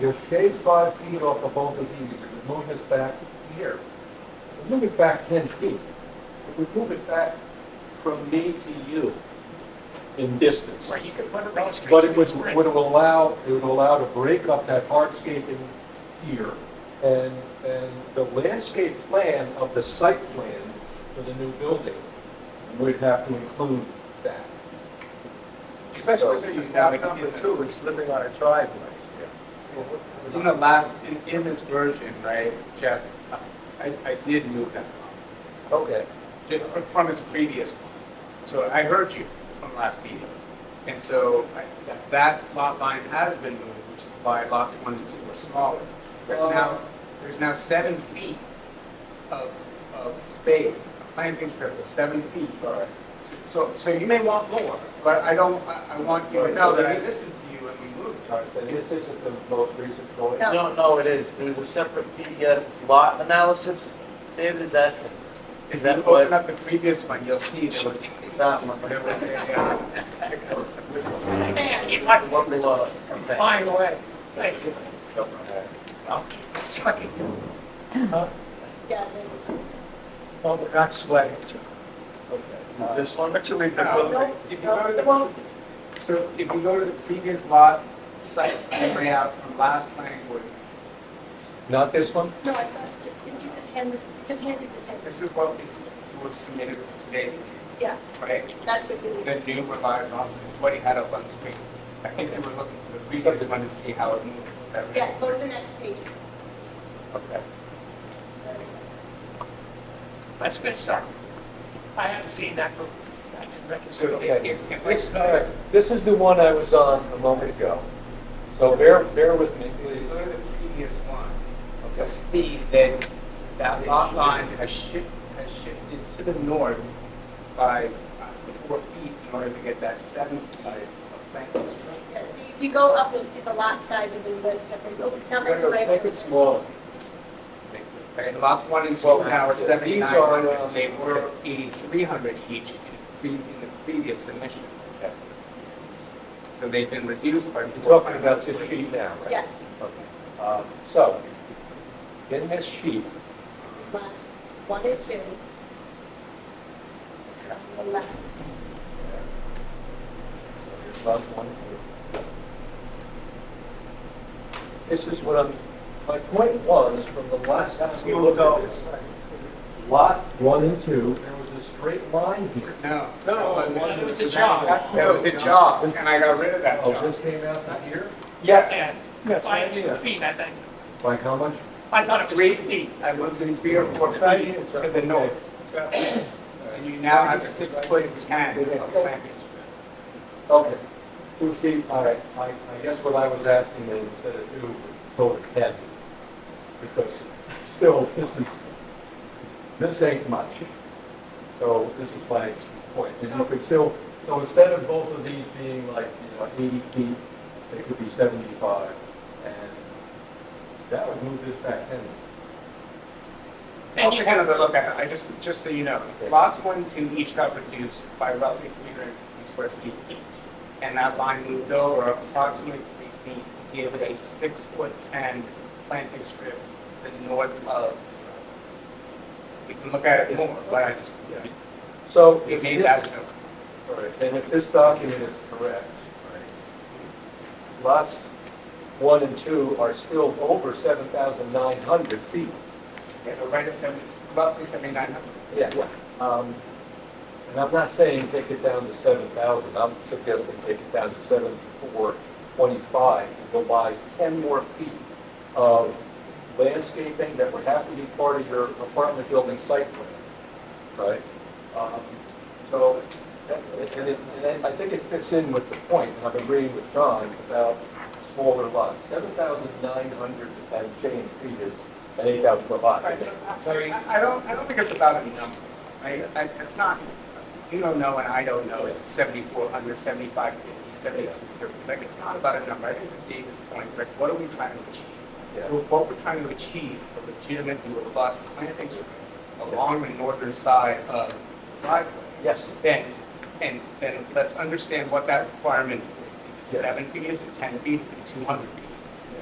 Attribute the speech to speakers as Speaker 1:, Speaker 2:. Speaker 1: You're shaved five feet off of both of these, and we move this back here. We Move it back ten feet. If we move it back from me to you in distance.
Speaker 2: Right, you could put a road straight.
Speaker 1: But
Speaker 2: to
Speaker 1: it
Speaker 2: the
Speaker 1: was,
Speaker 2: grid.
Speaker 1: would allow, it would allow to break up that hardscaping here. And, and the landscape plan of the site plan for the new building would have to include that.
Speaker 3: Especially when you have number two, it's living on a driveway. In the last, in, in this version, right, Jeff, I, I did move that line,
Speaker 1: Okay.
Speaker 3: ju- from, from its previous one. So I heard you from last meeting. And so I- that- that lot line has been moved, which is why lot one and two are smaller. There's now, there's now seven feet of, of space, a planting strip of seven feet.
Speaker 1: Alright.
Speaker 3: So, so you may want more, but I don't, I, I want you to know that I listened to you and we moved.
Speaker 1: All right, then this isn't the most recent drawing.
Speaker 3: Yeah.
Speaker 4: No, no, it is. There's a separate PDF. It's lot analysis. David, is that,
Speaker 3: If
Speaker 4: is
Speaker 3: you
Speaker 4: that
Speaker 3: open
Speaker 4: what?
Speaker 3: up the previous one, you'll see that was-
Speaker 4: It's not one.
Speaker 3: whatever was there, yeah.
Speaker 2: Man, get my
Speaker 4: What below? Okay.
Speaker 2: flying away. Thank you. Chucky.
Speaker 5: Yeah, this,
Speaker 2: Oh, we're not sweating.
Speaker 4: This one?
Speaker 3: Actually, the
Speaker 5: no,
Speaker 3: one- if you go to
Speaker 5: no,
Speaker 3: the-
Speaker 5: it won't.
Speaker 3: So if you go to the previous lot site layout from last planning board,
Speaker 1: Not this one?
Speaker 5: No, I thought, didn't you just hand this, just handed this in?
Speaker 3: this is what is, was submitted for today,
Speaker 5: Yeah,
Speaker 3: right?
Speaker 5: that's what you
Speaker 3: The
Speaker 5: need.
Speaker 3: new revised lot, is what he had up on screen. I think they were looking for the previous one to see how it moved. Is that right?
Speaker 5: Yeah, go to the next page.
Speaker 3: Okay.
Speaker 2: That's a good start. I haven't seen that movie. I didn't recognize
Speaker 3: So
Speaker 2: it.
Speaker 3: if, if- if I
Speaker 1: This, all right, this is the one I was on a moment ago. So bear, bear with me,
Speaker 3: If you
Speaker 1: please.
Speaker 3: go to the previous one, you'll see that that lot line has shifted, has shifted to the north by uh, four feet in order to get that seven feet of planting strip.
Speaker 5: Yeah, so if you go up, you'll see the lot sizes and the different, oh,
Speaker 1: Make
Speaker 5: number,
Speaker 1: it- Make
Speaker 5: right?
Speaker 1: it smaller.
Speaker 3: Okay, the lots one and two
Speaker 1: Well,
Speaker 3: now are
Speaker 1: these
Speaker 3: seventy-nine
Speaker 1: are, uh,
Speaker 3: hundred, they were eighty-three hundred each in the pre- in the previous submission. So they've been reduced by
Speaker 1: We're
Speaker 3: four.
Speaker 1: talking about this sheet now, right?
Speaker 5: Yes,
Speaker 1: Um, So, in this sheet,
Speaker 5: lots one and two. On the left,
Speaker 1: there's lot one and two. This is what I'm, my point was, from the last time we looked at this, lot one and two, there was a straight line here.
Speaker 3: No.
Speaker 2: No,
Speaker 3: that wasn't-
Speaker 2: it was a job.
Speaker 3: That's- That was a job, and I got rid of that
Speaker 1: Oh,
Speaker 3: job.
Speaker 1: this came out that year?
Speaker 2: Yeah, by two feet, I think.
Speaker 1: Like how much?
Speaker 2: I thought it was
Speaker 3: Three
Speaker 2: two feet.
Speaker 3: I moved it three or four feet to the north. And you now have a six foot ten of frontage.
Speaker 1: Okay. Two feet, all right. I, I guess what I was asking is instead of two, go with ten. Because still, this is, this ain't much. So this is my point. And you could still, so instead of both of these being like, you know, eighty feet, they could be seventy-five. And that would move this back ten.
Speaker 2: And
Speaker 3: I'll
Speaker 2: you,
Speaker 3: kind of look at it, I just, just so you know, lots one and two each got reduced by roughly three hundred and fifty square feet each. And that line moved over approximately three feet to give it a six foot ten planting strip to the north of. We can look at it more, but I just,
Speaker 1: So
Speaker 3: it
Speaker 1: if
Speaker 3: made that
Speaker 1: this,
Speaker 3: note.
Speaker 1: all right, and if this document is correct, lots one and two are still over 7,900 feet.
Speaker 3: Yeah, so right at seventy, roughly seventy-nine hundred.
Speaker 1: Yeah. Um, And I'm not saying take it down to 7,000, I'm suggesting take it down to 7,425 and go buy 10 more feet of landscaping that would have to be part of your apartment building site plan, right? Um, So, that- and it- and I think it fits in with the point, and I'm agreeing with John about smaller lots. 7,900 and change feet is an eight-hour lot. I think.
Speaker 3: Sorry, I I don't, I don't think it's about a number, right? I- It's not, you don't know and I don't know, if it's 7,400, 7,550, 7,230. Like, it's not about a number. I think to David's point, it's like, what are we trying to achieve?
Speaker 1: Yeah.
Speaker 3: So what we're trying to achieve, a legitimate, robust planting strip along the northern side of driveway.
Speaker 1: Yes.
Speaker 3: Then, and then let's understand what that requirement is. Is
Speaker 1: Yes.
Speaker 3: it seven feet, is it 10 feet, is it 200 feet?